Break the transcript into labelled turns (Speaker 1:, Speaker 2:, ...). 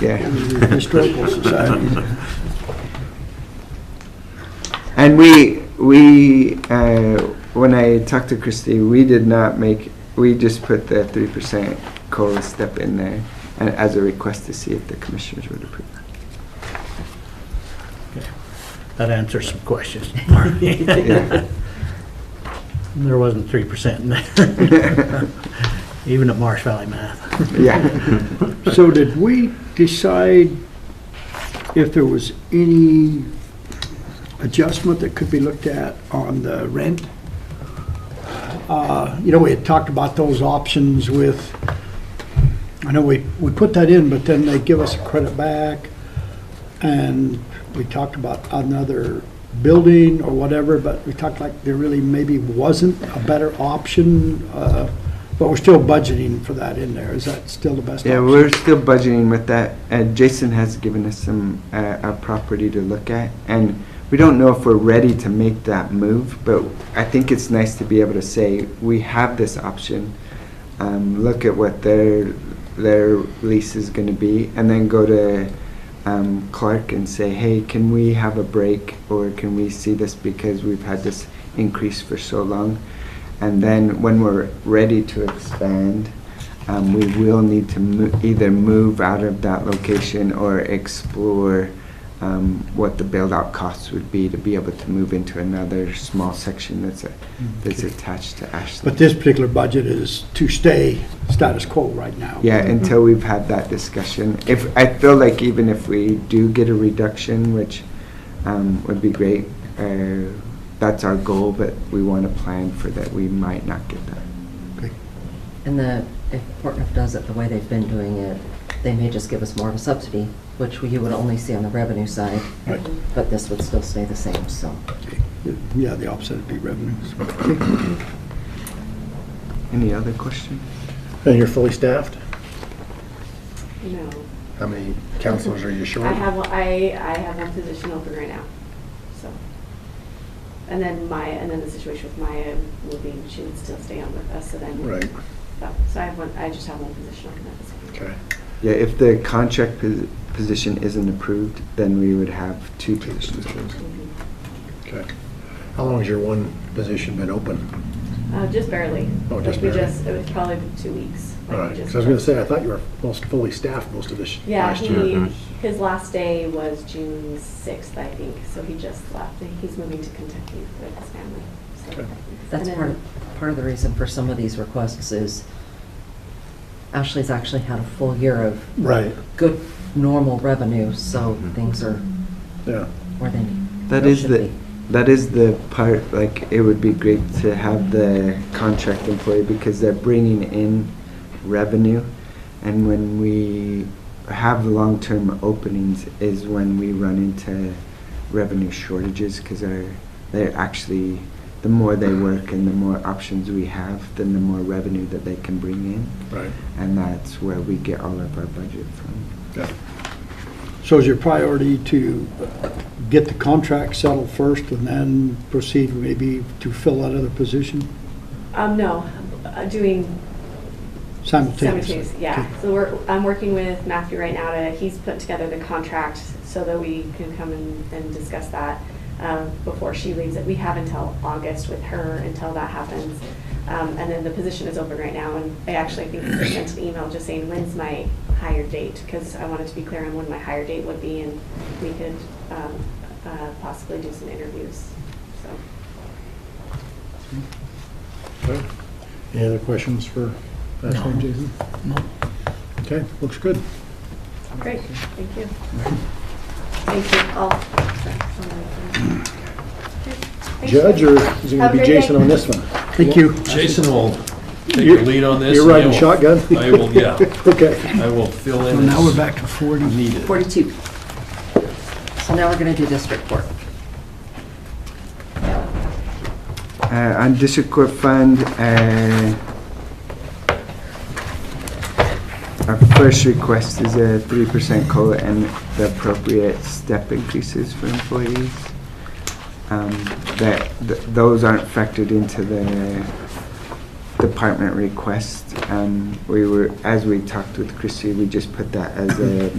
Speaker 1: yeah.
Speaker 2: in the Historical Society.
Speaker 1: And we, we, uh, when I talked to Christie, we did not make, we just put the three percent COLA step in there and as a request to see if the commissioners would approve.
Speaker 3: That answers some questions. There wasn't 3% in there. Even at Marsh Valley Math.
Speaker 1: Yeah,
Speaker 2: So did we decide if there was any adjustment that could be looked at on the rent? Uh, You know, we had talked about those options with, I know we, we put that in, but then they give us a credit back. And we talked about another building or whatever, but we talked like there really maybe wasn't a better option. uh, But we're still budgeting for that in there. Is that still the best option?
Speaker 1: yeah, we're still budgeting with that. And Jason has given us some, uh, a property to look at. And we don't know if we're ready to make that move, but I think it's nice to be able to say, we have this option. Um, look at what their, their lease is gonna be and then go to, um, Clark and say, hey, can we have a break? Or can we see this because we've had this increase for so long? And then when we're ready to expand, um, we will need to mo- either move out of that location or explore um, what the build-out costs would be to be able to move into another small section that's, a- that's attached to
Speaker 2: But
Speaker 1: Ashland.
Speaker 2: this particular budget is to stay status quo right now.
Speaker 1: Yeah, until we've had that discussion. If, I feel like even if we do get a reduction, which um, would be great, uh, that's our goal, but we want to plan for that we might not get that.
Speaker 4: And the, if Portneuf does it the way they've been doing it, they may just give us more of a subsidy, which you would only see on the revenue side,
Speaker 2: Right.
Speaker 4: but this would still stay the same, so.
Speaker 2: Yeah, the opposite would be revenues.
Speaker 1: Any other questions?
Speaker 5: And you're fully staffed?
Speaker 6: No,
Speaker 5: How many counselors are you short?
Speaker 6: I have, one- I, I have one position open right now, so. And then Maya, and then the situation with Maya moving, she would still stay on with us, so then.
Speaker 5: Right,
Speaker 6: So so I have one, I just have one position open at this point.
Speaker 5: okay.
Speaker 1: Yeah, if the contract posi- position isn't approved, then we would have two
Speaker 5: Two
Speaker 1: positions.
Speaker 5: positions.
Speaker 6: Mhm.
Speaker 5: Okay. How long has your one position been open?
Speaker 6: Uh, just barely.
Speaker 5: Oh, just
Speaker 6: Like, we
Speaker 5: barely.
Speaker 6: it was probably two weeks.
Speaker 5: All
Speaker 6: like, we
Speaker 5: right,
Speaker 6: just-
Speaker 5: because I was going to say, I thought you were most fully staffed most of this
Speaker 6: Yeah,
Speaker 5: last year.
Speaker 6: he, his last day was June sixth, I think, so he just left, he's moving to Kentucky with his family, so.
Speaker 5: Okay.
Speaker 4: That's
Speaker 6: And then-
Speaker 4: part of, part of the reason for some of these requests is Ashley's actually had a full year of
Speaker 5: Right,
Speaker 4: good, normal revenue, so things are
Speaker 5: yeah.
Speaker 4: where they
Speaker 1: That
Speaker 4: they
Speaker 1: is
Speaker 4: should
Speaker 1: the-
Speaker 4: be.
Speaker 1: That is the part, like, it would be great to have the contract employee because they're bringing in revenue. And when we have long-term openings is when we run into revenue shortages because they're, they're actually, the more they work and the more options we have, then the more revenue that they can bring in.
Speaker 5: Right,
Speaker 1: And that's where we get all of our budget from.
Speaker 5: yeah.
Speaker 2: So is your priority to get the contract settled first and then proceed maybe to fill that other position
Speaker 6: Um, no, uh, doing
Speaker 2: simultaneously?
Speaker 6: Cemeteries, yeah. So we're, I'm working with Matthew right now to, he's put together the contract so that we can come and, and discuss that um, before she leaves. We have until August with her until that happens. Um, And then the position is open right now, and I actually think I sent an email just saying, when's my hire date? Because I wanted to be clear on when my hire date would be, and we could um, uh, possibly do some interviews, so.
Speaker 5: Okay. Any other questions for Ashley and Jason?
Speaker 3: No.
Speaker 5: Okay, looks good.
Speaker 6: Great, thank you. Thank you all. Thank you.
Speaker 5: Judge, or is
Speaker 6: Have
Speaker 5: it going
Speaker 6: a
Speaker 5: to be
Speaker 6: great day.
Speaker 5: Jason on this one?
Speaker 2: Thank you.
Speaker 7: Jason will take
Speaker 5: You're-
Speaker 7: the lead on this.
Speaker 5: You're
Speaker 7: and I
Speaker 5: riding
Speaker 7: will-
Speaker 5: shotgun?
Speaker 7: I will, yeah,
Speaker 5: Okay,
Speaker 7: I will fill
Speaker 2: So
Speaker 7: in
Speaker 2: now we're
Speaker 7: as
Speaker 2: back to 40.
Speaker 7: needed.
Speaker 4: 42. So now we're going to do district court.
Speaker 1: Uh, on district court fund, uh, our first request is a three percent COLA and the appropriate step increases for employees. Um, that, th- those aren't factored into the department request. Um, we were, as we talked with Christie, we just put that as a